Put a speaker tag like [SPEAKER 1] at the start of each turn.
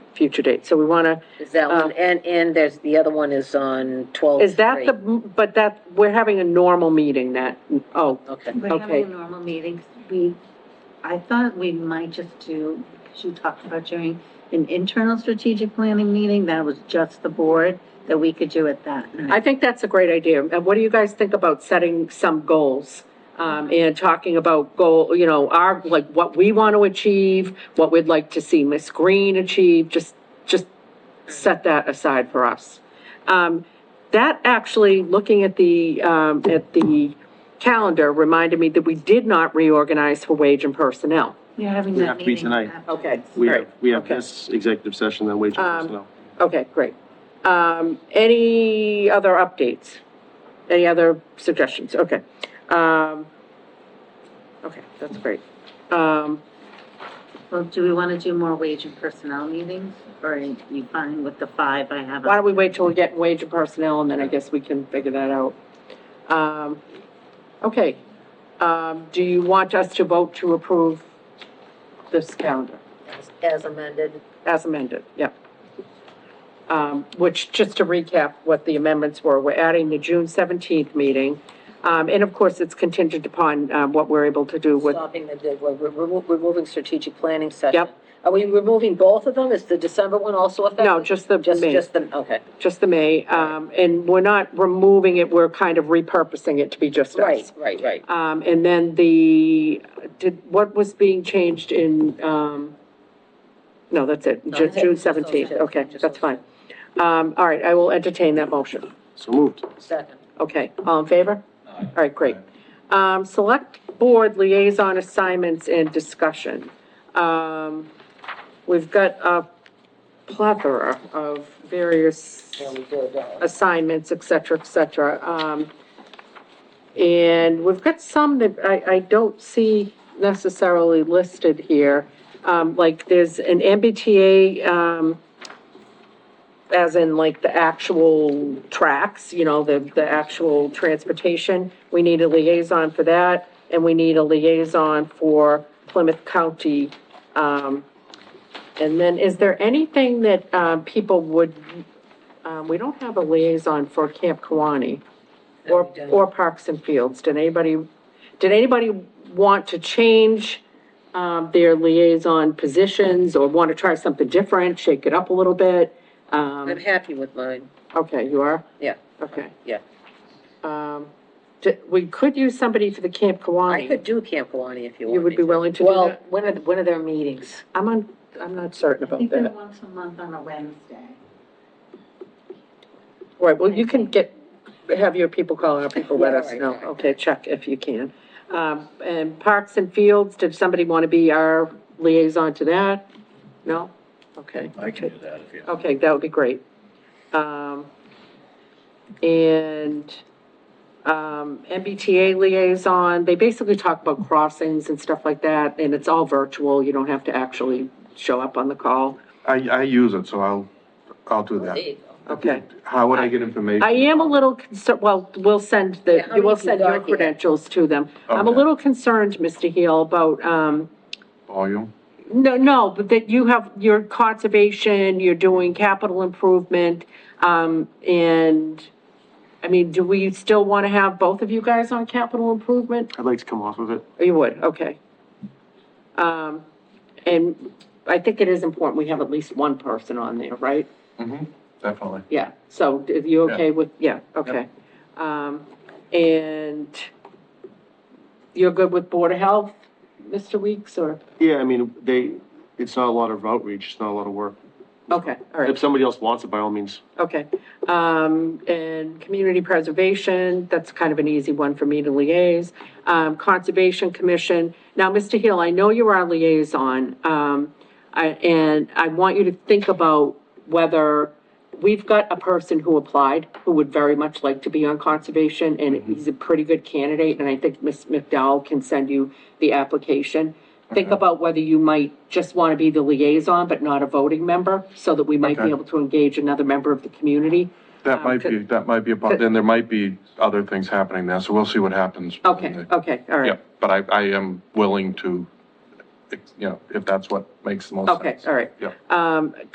[SPEAKER 1] future date. So we want to,
[SPEAKER 2] Is that one, and, and there's, the other one is on twelve.
[SPEAKER 1] Um, is that the, but that, we're having a normal meeting that, oh,
[SPEAKER 2] Okay,
[SPEAKER 3] We're
[SPEAKER 1] Okay.
[SPEAKER 3] having a normal meeting. We, I thought we might just do, because you talked about doing an internal strategic planning meeting, that was just the board, that we could do it that night.
[SPEAKER 1] I think that's a great idea. And what do you guys think about setting some goals? Um, and talking about goal, you know, our, like, what we want to achieve, what we'd like to see Miss Green achieve, just, just set that aside for us. Um, that actually, looking at the, um, at the calendar, reminded me that we did not reorganize for wage and personnel.
[SPEAKER 3] We're having
[SPEAKER 4] We
[SPEAKER 3] that
[SPEAKER 4] have to be
[SPEAKER 3] meeting.
[SPEAKER 4] tonight.
[SPEAKER 3] after
[SPEAKER 1] Okay.
[SPEAKER 3] this.
[SPEAKER 4] We have, we have
[SPEAKER 1] Okay.
[SPEAKER 4] this executive session, then wage
[SPEAKER 1] Um,
[SPEAKER 4] and personnel.
[SPEAKER 1] Okay, great. Um, any other updates? Any other suggestions? Okay. Um, okay, that's great. Um,
[SPEAKER 3] Well, do we want to do more wage and personnel meetings, or are you fine with the five I have?
[SPEAKER 1] why don't we wait till we get wage and personnel and then I guess we can figure that out. Um, okay. Um, do you want us to vote to approve this calendar
[SPEAKER 2] As- as amended.
[SPEAKER 1] as amended? Yep. Um, which, just to recap what the amendments were, we're adding the June seventeenth meeting. Um, and of course, it's contingent upon, uh, what we're able to do with
[SPEAKER 2] Stopping the, the- we're, we're remo- removing strategic planning session.
[SPEAKER 1] Yep.
[SPEAKER 2] Are we removing both of them? Is the December one also affected?
[SPEAKER 1] No, just the
[SPEAKER 2] Just,
[SPEAKER 1] May,
[SPEAKER 2] just the, okay,
[SPEAKER 1] just the May. Um, and we're not removing it, we're kind of repurposing it to be just
[SPEAKER 2] right,
[SPEAKER 1] us.
[SPEAKER 2] right, right.
[SPEAKER 1] Um, and then the, did, what was being changed in, um, no, that's it,
[SPEAKER 2] No,
[SPEAKER 1] Ju-
[SPEAKER 2] that's it.
[SPEAKER 1] June
[SPEAKER 2] Just those
[SPEAKER 1] seventeenth,
[SPEAKER 2] two.
[SPEAKER 1] okay,
[SPEAKER 2] Just
[SPEAKER 1] that's
[SPEAKER 2] those
[SPEAKER 1] fine. Um, all right, I will entertain that motion.
[SPEAKER 4] So moved.
[SPEAKER 2] Second.
[SPEAKER 1] Okay, all in favor? All right, great. Um, select board liaison assignments and discussion. Um, we've got a plethora of various
[SPEAKER 2] Yeah, we did, uh,
[SPEAKER 1] assignments, et cetera, et cetera. Um, and we've got some that I, I don't see necessarily listed here. Um, like there's an MBTA, um, as in like the actual tracks, you know, the, the actual transportation. We need a liaison for that, and we need a liaison for Plymouth County. Um, and then is there anything that, um, people would, um, we don't have a liaison for Camp Kawani or,
[SPEAKER 2] that we did.
[SPEAKER 1] or Parks and Fields. Did anybody, did anybody want to change, um, their liaison positions or want to try something different, shake it up a little bit? Um,
[SPEAKER 2] I'm happy with mine,
[SPEAKER 1] Okay, you are?
[SPEAKER 2] yeah.
[SPEAKER 1] Okay.
[SPEAKER 2] Yeah.
[SPEAKER 1] Um, d- we could use somebody for the Camp
[SPEAKER 2] I
[SPEAKER 1] Kawani.
[SPEAKER 2] could do Camp Kawani if you
[SPEAKER 1] Um,
[SPEAKER 2] want
[SPEAKER 1] You would
[SPEAKER 2] me
[SPEAKER 1] be willing to do
[SPEAKER 2] Well,
[SPEAKER 1] that?
[SPEAKER 2] when are, when are their meetings?
[SPEAKER 1] I'm on, I'm not certain
[SPEAKER 3] I
[SPEAKER 1] about
[SPEAKER 3] think they're
[SPEAKER 1] that.
[SPEAKER 3] once a month on a Wednesday.
[SPEAKER 1] All Right, well, you can get, have your people call our people, let
[SPEAKER 2] Yeah,
[SPEAKER 1] us
[SPEAKER 2] right,
[SPEAKER 1] know.
[SPEAKER 2] right.
[SPEAKER 1] Okay, check if you can. Um, and Parks and Fields, did somebody want to be our liaison to that? No? Okay.
[SPEAKER 5] I can do that if you.
[SPEAKER 1] Okay, that would be great. Um, and, um, MBTA liaison, they basically talk about crossings and stuff like that, and it's all virtual, you don't have to actually show up on the call.
[SPEAKER 4] I, I use it, so I'll, I'll do that.
[SPEAKER 2] There you go.
[SPEAKER 1] Okay.
[SPEAKER 4] How would I get information?
[SPEAKER 1] I am a little concerned, well, we'll send
[SPEAKER 2] Yeah,
[SPEAKER 1] the,
[SPEAKER 2] how
[SPEAKER 1] you will
[SPEAKER 2] many
[SPEAKER 1] send
[SPEAKER 2] people are
[SPEAKER 1] your
[SPEAKER 2] here?
[SPEAKER 1] credentials to them. I'm a
[SPEAKER 4] Okay.
[SPEAKER 1] little concerned, Mr. Heel, about, um,
[SPEAKER 4] Volume?
[SPEAKER 1] No, no, but that you have your conservation, you're doing capital improvement, um, and, I mean, do we still want to have both of you guys on capital improvement?
[SPEAKER 4] I'd like to come off of it.
[SPEAKER 1] Oh, You would, okay. Um, and I think it is important we have at least one person on there, right?
[SPEAKER 4] Mm-hmm, definitely.
[SPEAKER 1] Yeah, so if you
[SPEAKER 4] Yeah.
[SPEAKER 1] okay with, yeah, okay. Um, and you're good with Board of Health, Mr. Weeks, or,
[SPEAKER 4] Yeah, I mean, they, it's not a lot of outreach, it's not a lot of work.
[SPEAKER 1] okay, all right.
[SPEAKER 4] If somebody else wants it, by all means.
[SPEAKER 1] Okay, um, and community preservation, that's kind of an easy one for me to liaise. Um, Conservation Commission, now, Mr. Hill, I know you're our liaison, um, I, and I want you to think about whether, we've got a person who applied who would very much like to be on conservation, and he's a pretty good candidate, and I think Ms. McDowell can send you the application. Think about whether you might just want to be the liaison, but not a voting member, so that we might be
[SPEAKER 4] Okay.
[SPEAKER 1] able able to engage another member of the community.
[SPEAKER 6] That
[SPEAKER 1] Um,
[SPEAKER 6] might
[SPEAKER 1] could-
[SPEAKER 6] be, that might be about, then there might be other things happening now, so we'll see what happens.
[SPEAKER 1] Okay,
[SPEAKER 6] Mm-hmm.
[SPEAKER 1] okay, all
[SPEAKER 6] Yeah,
[SPEAKER 1] right.
[SPEAKER 6] but I, I am willing to, you know, if that's what makes the most
[SPEAKER 1] Okay,
[SPEAKER 6] sense.
[SPEAKER 1] all right.
[SPEAKER 6] Yeah.
[SPEAKER 1] Um,